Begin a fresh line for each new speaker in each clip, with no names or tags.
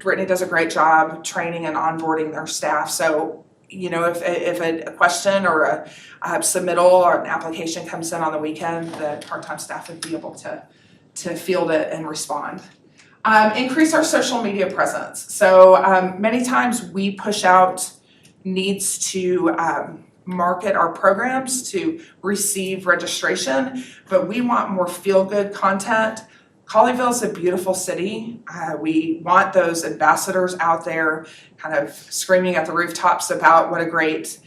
Brittany does a great job training and onboarding their staff, so, you know, if, if a a question or a, uh submittal or an application comes in on the weekend, the part-time staff would be able to, to field it and respond. Um, increase our social media presence, so, um, many times we push out needs to, um, market our programs to receive registration, but we want more feel-good content Colleyville's a beautiful city. Uh, we want those ambassadors out there kind of screaming at the rooftops about what a great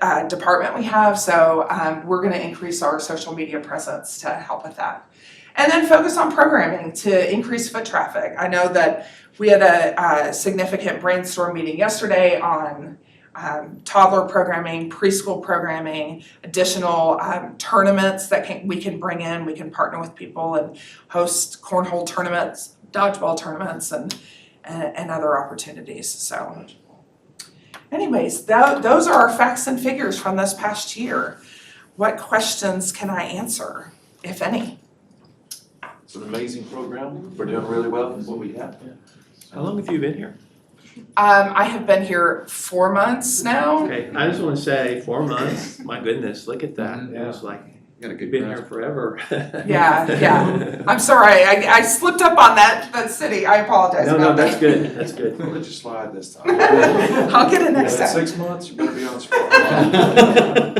uh, department we have. So um, we're going to increase our social media presence to help with that. And then focus on programming to increase foot traffic. I know that we had a, a significant brainstorm meeting yesterday on um, toddler programming, preschool programming, additional um, tournaments that can, we can bring in. We can partner with people and host cornhole tournaments, dodgeball tournaments, and and, and other opportunities. So, anyways, tho- those are our facts and figures from this past year. What questions can I answer, if any?
It's an amazing program. We're doing really well with what we have.
How long have you been here?
Um, I have been here four months now.
Okay, I just wanna say, four months, my goodness, look at that, it was like,
Got a
you've
good
been here
grasp.
forever.
Yeah, yeah. I'm sorry, I, I slipped up on that that city. I apologize
No, no,
about
that's
that.
good, that's good.
We'll let you slide this time.
I'll get it
Yeah, in
next time.
Six months, you better be on spot.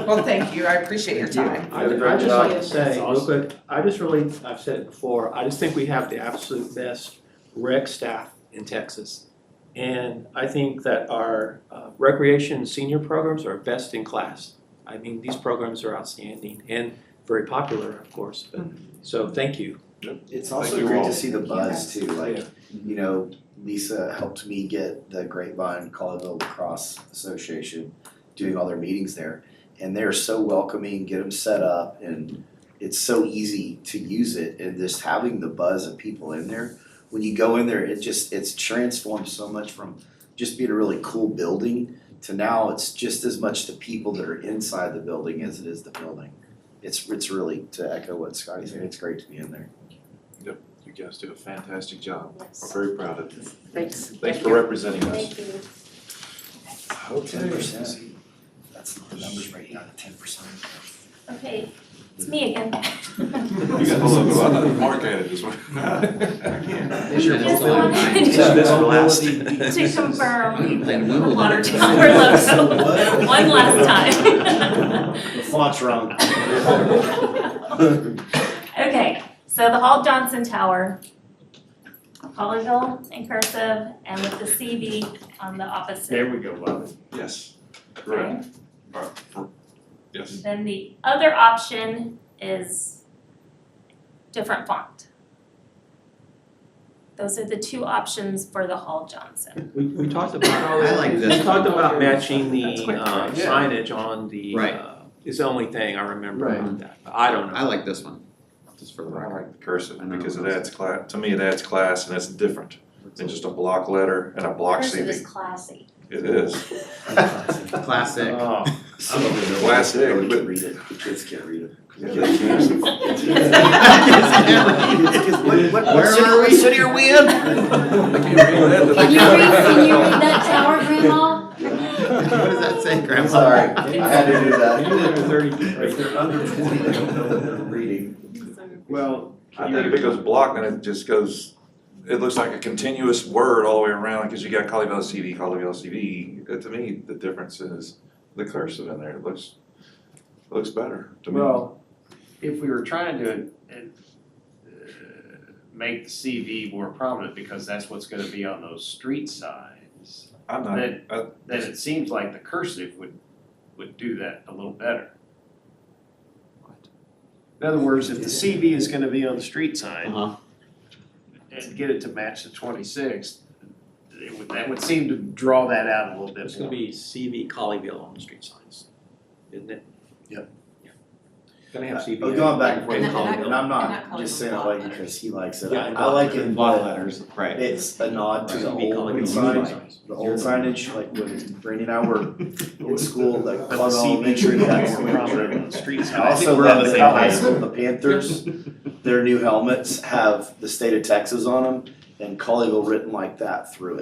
Well, thank you. I appreciate your
Thank you.
time.
I
You did a great
I'd just
job.
like to
That's
say, real
awesome.
quick, I just really, I've said it before, I just think we have the absolute best rec staff in Texas. And I think that our uh, recreation senior programs are best in class. I mean, these programs are outstanding and very popular, of course, but,
Mm-hmm.
so thank you.
It's
Thank
also
you
great
all.
to see the buzz too,
Yeah.
like, you know, Lisa helped me get the Grapevine Colorado Lacrosse Association doing all their meetings there. And they're so welcoming, get them set up and it's so easy to use it and just having the buzz of people in there. When you go in there, it just, it's transformed so much from just being a really cool building to now it's just as much the people that are inside the building as it is the building. It's, it's really, to echo what Scotty said, it's great to be in there.
You guys do a fantastic job. We're very proud of you.
Thanks.
Thanks for representing us.
Thank you.
Ten
Okay.
percent. That's the numbers right now, ten percent.
Okay, it's me again.
You got a little bit of a mark at it this one.
Just wanted
Yeah, that's the last.
to confirm
Then we
the
will
water
let it
tower logo, one last
The font's wrong.
time. Okay, so the Hall Johnson Tower, Colleyville in cursive and with the CV on the opposite.
we go, Bob.
Yes. Right. Uh, for- Yes.
Then the other option is different font. Those are the two options for the Hall Johnson.
We, we talked about all
I like
We
this.
talked about matching
That's
the
quick,
uh,
yeah.
signage on the,
Right.
uh, is the only thing I remember
Right.
about that. I don't
I
know.
like this one, just for the
I
record.
like the cursive
I know.
because it adds class, to me, it adds class and it's different than just a block letter and a block
Cursive is
CV.
classy.
It is.
Classic.
Oh,
Classic,
I
but-
can read it, the kids can't read it.
Kids
Kids, what, what, what
Where
city,
are
what
we?
city are we in?
Can you read, can you read that tower, Grandma?
What does that say, Grandma?
I'm sorry, I had to do
Maybe they're
that.
thirty
If they're under twenty, they don't know what they're reading.
Well.
I think if it goes block, then it just goes, it looks like a continuous word all the way around, cause you got Colleyville CV, Colleyville CV. Uh, To me, the difference is the cursive in there, it looks, looks better to me.
Well, if we were trying to uh, make the CV more prominent, because that's what's gonna be on those street signs,
I'm not,
then,
uh,
then it seems like the cursive would, would do that a little better. In other words, if the CV is gonna be on the street sign
Uh-huh.
and get it to match the twenty-sixth, it would, that would seem to draw that out a little
It's
bit
gonna
more.
be CV Colleyville on the street signs, isn't it?
Yep.
Yeah. Gonna have CV.
But going back and forth,
in
and
Colleyville.
I'm not just saying I like it because he likes it,
Yeah,
I
I
I like it,
Block
but
letters, right.
it's a nod to the
CV Colleyville
old
street
sign,
signs.
the old signage, like when Brandy and I were in school, like
But the
Club Elementary,
CV would
that's
be
when
more
we were
prominent on the street sign.
I also love that in high school, the Panthers, their new helmets have the state of Texas on them. and Colleyville written like that through it.